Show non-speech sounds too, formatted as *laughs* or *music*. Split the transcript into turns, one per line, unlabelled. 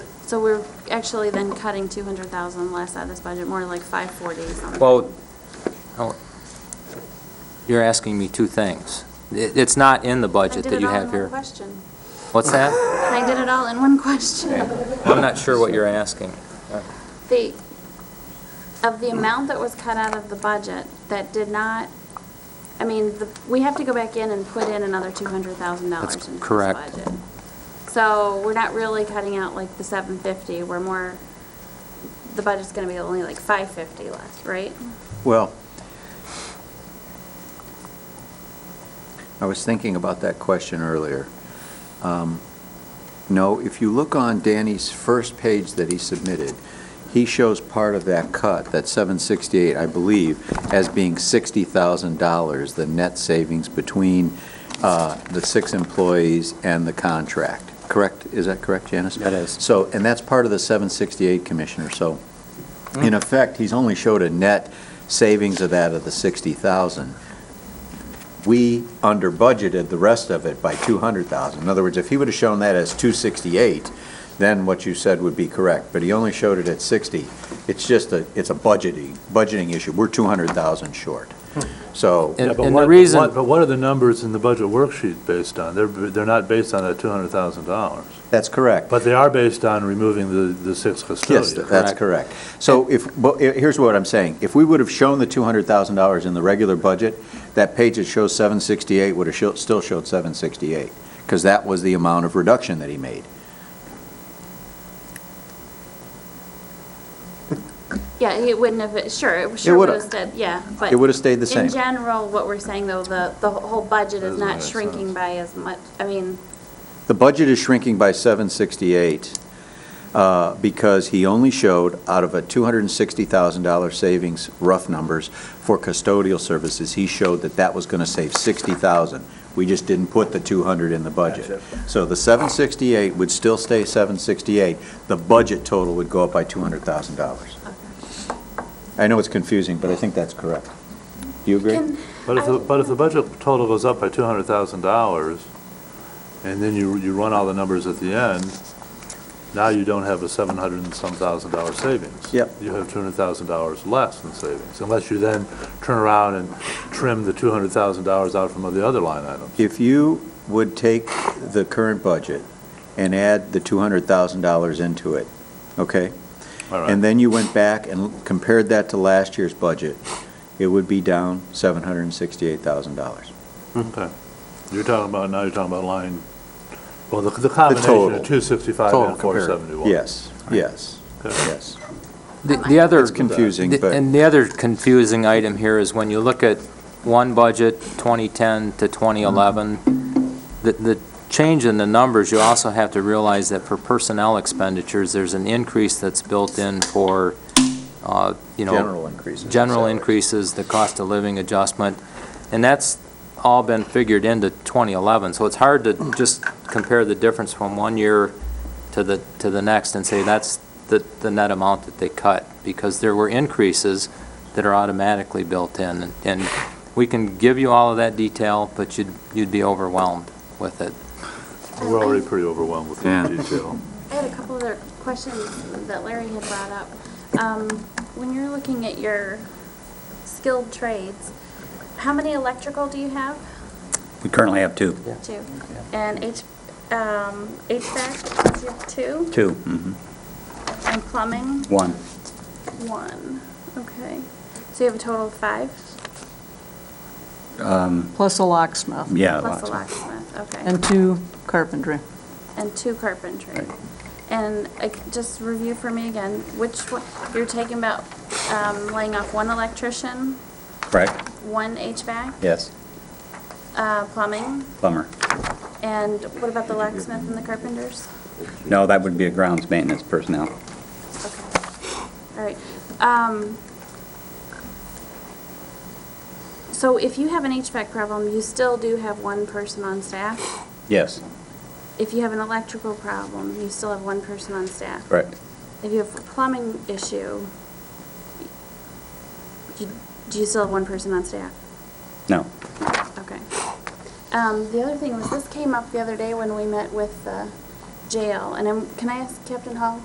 So we're actually then cutting 200,000 less out of this budget, more like 540 something.
Well, hold- you're asking me two things. It- It's not in the budget that you have
I did it all
here.
in one question. *laughs*
What's that?
I did it all in one *laughs* question.
I'm not sure what you're asking.
The, of the amount that was cut out of the budget that did not, I mean, the- we have to go back in and put in another $200,000
That's
into this
correct.
budget. So we're not really cutting out like the 750, we're more, the budget's going to be only like 550 less, right?
Well, I was thinking about that question earlier. Um, No, if you look on Danny's first page that he submitted, he shows part of that cut, that 768, I believe, as being $60,000, the net savings between uh, the six employees and the contract. Correct? Is that correct, Janice?
That is.
So, and that's part of the 768, Commissioner, so in effect, he's only showed a net savings of that of the 60,000. We under-budgeted the rest of it by 200,000. In other words, if he would have shown that as 268, then what you said would be correct, but he only showed it at 60. It's just a, it's a budgeting, budgeting issue. We're 200,000 short. So,
And-
Yeah, but
and
what-
the
but
reason-
what- But what are the numbers in the budget worksheet based on? They're, they're not based on that $200,000,
that's correct.
but they are based on removing the, the six
Yes,
custodians.
that's correct. So if, but he- here's what I'm saying. If we would have shown the $200,000 in the regular budget, that page that shows 768 would have sho- still showed 768, because that was the amount of reduction that he made.
Yeah, it wouldn't have, sure, it sure would
would've.
have stayed, yeah, but.
It would have stayed the same.
In general, what we're saying though, the, the whole budget is
Doesn't
not
make
shrinking
sense.
by as much, I mean,
The budget is shrinking by 768 uh, because he only showed out of a $260,000 savings, rough numbers, for custodial services, he showed that that was going to save 60,000. We just didn't put the 200 in the budget. So the 768 would still stay 768. The budget total would go up by $200,000. I know it's confusing, but I think that's correct. Do you agree?
Can-
But if,
I-
the- but if the budget total goes up by $200,000, and then you, you run all the numbers at the end, now you don't have a 700 and some thousand dollar savings.
Yep.
You have $200,000 less in savings, unless you then turn around and trim the $200,000 out from the other line items.
If you would take the current budget and add the $200,000 into it, okay?
All right.
And then you went back and compared that to last year's budget, it would be down $768,000.
Okay. You're talking about, now you're talking about line, well, the the combination
total.
of 265
Total
and
compared.
471.
Yes, yes,
Okay.
yes.
Oh,
The the other...
It's confusing,
The-
but
And the other confusing item here is when you look at one budget, 2010 to 2011, the, the change in the numbers, you also have to realize that for personnel expenditures, there's an increase that's built in for, uh, you know...
general increases. in
General
salaries.
increases, the cost of living adjustment, and that's all been figured into 2011. So it's hard to just compare the difference from one year to the, to the next and say that's the, the net amount that they cut, because there were increases that are automatically built in. And we can give you all of that detail, but you'd, you'd be overwhelmed with it.
We're already pretty overwhelmed with
Yeah.
the detail.
I had a couple other questions that Larry had brought up. Um, when you're looking at your skilled trades, how many electrical do you have?
We currently have two.
Two. And H, um, HVAC, is you have two?
Two, mhm.
And plumbing,
one.
one. Okay. So you have a total of five?
Um,
plus a locksmith
Yeah.
Plus a
lots.
locksmith, okay.
and two carpentry.
and two carpentry.
Right.
And uh, just review for me again, which one, you're talking about um, laying off one electrician,
Correct?
one HVAC,
Yes.
uh, plumbing,
Plumber.
and what about the locksmith and the carpenters?
No, that would be a grounds maintenance personnel.
Okay, all right. Um, So if you have an HVAC problem, you still do have one person on staff?
Yes,
If you have an electrical problem, you still have one person on staff?
correct.
If you have a plumbing issue, you- do you still have one person on staff?
No.
Okay. Um, the other uh, thing was, this came up the other day when we met with the jail, and I'm, can I ask Captain Hall